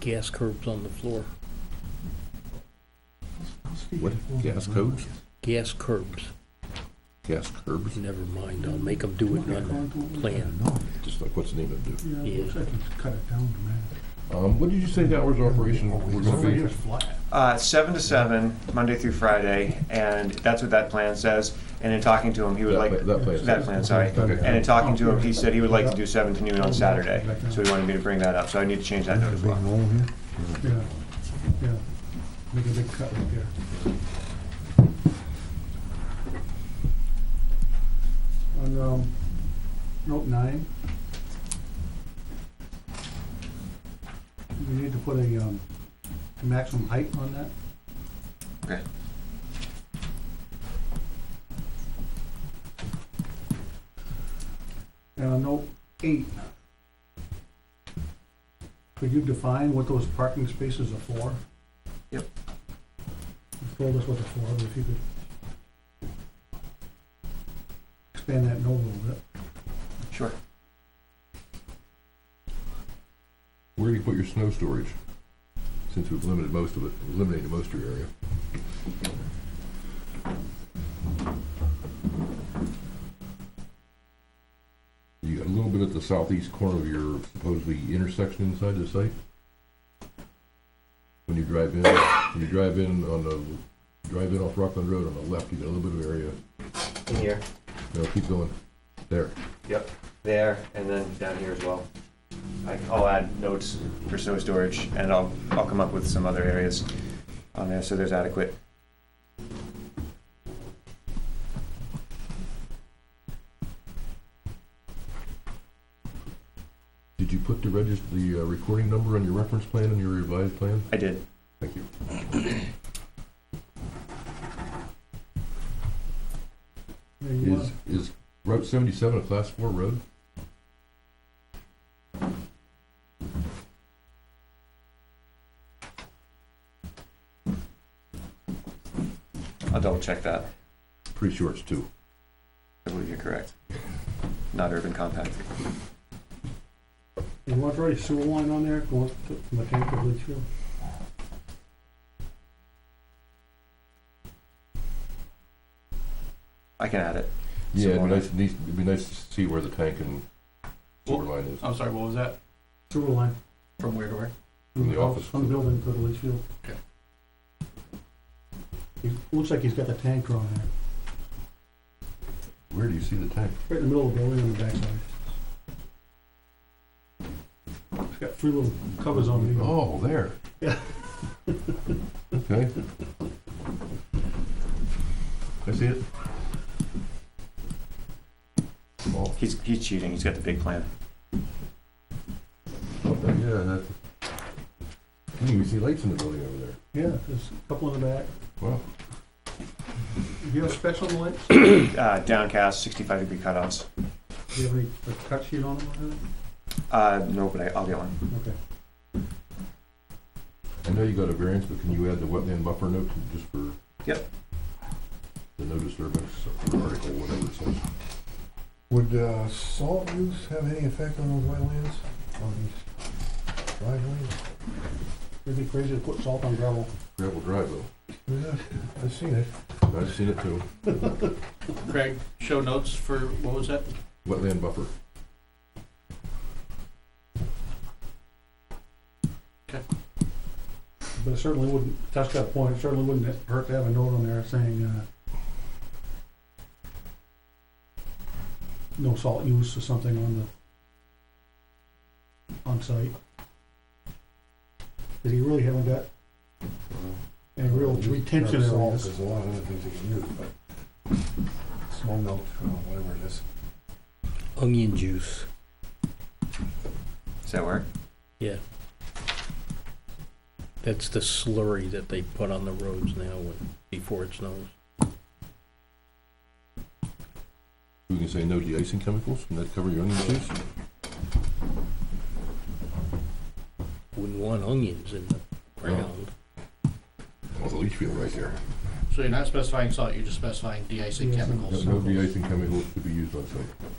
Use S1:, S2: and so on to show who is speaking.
S1: gas curbs on the floor,
S2: What, gas codes?
S1: gas curbs.
S2: Gas curbs?
S1: Never mind, I'll make them do it on the plan.
S2: Just like, what's the name of it?
S3: Yeah, it looks like it's cut it down dramatically.
S2: Um, what did you say the hours of operation were
S3: Over
S2: gonna
S3: here
S2: be?
S3: is flat.
S4: Uh, seven to seven, Monday through Friday, and that's what that plan says. And in talking to him, he would
S2: That
S4: like,
S2: pla- that plan says.
S4: that plan, sorry.
S2: Okay.
S4: And in talking to him, he said he would like to do seven to noon on Saturday, so he wanted me to bring that up, so I need to change that note as well.
S3: Yeah, yeah. Make a big cut right there. On, um, note nine. We need to put a, um, maximum height on that.
S4: Okay.
S3: And on note eight. Could you define what those parking spaces are for?
S4: Yep.
S3: You've told us what they're for, but if you could expand that note a little bit.
S4: Sure.
S2: Where do you put your snow storage? Since we've limited most of it, eliminated most of your area. You got a little bit at the southeast corner of your supposedly intersection inside the site? When you drive in, when you drive in on the, drive in off Rockland Road on the left, you got a little bit of area.
S4: In here,
S2: No, keep going. There.
S4: yep, there, and then down here as well. I- I'll add notes for snow storage, and I'll, I'll come up with some other areas on there, so there's adequate.
S2: Did you put the register, the uh, recording number on your reference plan and your revised plan?
S4: I did.
S2: Thank you.
S3: Yeah, you
S2: Is, is Route seventy-seven a class four road?
S4: I'll double check that.
S2: Pretty sure it's two.
S4: I believe you're correct. Not urban compact.
S3: You want to write a sewer line on there, going to from the tank to Litchfield?
S4: I can add it.
S2: Yeah, it'd be
S4: Simone.
S2: nice, nice- it'd be nice to see where the tank and sewer line is.
S5: I'm sorry, what was that?
S3: Sewer line.
S5: From where to where?
S2: From the office.
S3: From the building to the Litchfield.
S5: Okay.
S3: He, looks like he's got the tank drawn there,
S2: Where do you see the tank?
S3: right in the middle of the building on the backside. It's got three little covers on it. you
S2: Oh, there.
S3: Yeah.
S2: Okay. I see it. Oh,
S4: He's, he's cheating. He's got the big plan.
S2: yeah, that. You can even see lights in the building over there.
S3: Yeah, there's a couple in the back.
S2: Wow.
S3: Do you have specs on the lights?
S4: Uh, downcast, 65 degree cutoffs.
S3: Do you have any, a cut sheet on them? or anything?
S4: Uh, no, but I, I'll get one.
S3: Okay.
S2: I know you got a variance, but can you add the wetland buffer note to- just for?
S4: Yep.
S2: The no disturbance article, whatever it says.
S6: Would uh, salt use have any effect on those wetlands, on these driveways?
S3: It'd be crazy to put salt on gravel.
S2: Gravel drive though,
S6: Yeah, I've seen it.
S2: I've seen it too,
S5: Craig, show notes for, what was that?
S2: wetland buffer.
S3: But it certainly wouldn't, that's got a point, it certainly wouldn't hurt to have a note on there saying, uh, no salt use or something on the, on site. Cause you really haven't got any real retention
S6: Not
S3: at
S6: salt,
S3: all.
S6: There's a lot of other things you can use, but snow melt, uh, whatever it is.
S1: Onion juice,
S4: Does that work?
S1: yeah. That's the slurry that they put on the roads now when, before it snows.
S2: We can say no de-icing chemicals, can that cover your onion juice?
S1: Wouldn't want onions in the ground.
S2: Well, the leach field right there.
S5: So you're not specifying salt, you're just specifying de-icing
S3: Yeah.
S5: chemicals.
S2: No no de-icing chemicals to be used on site.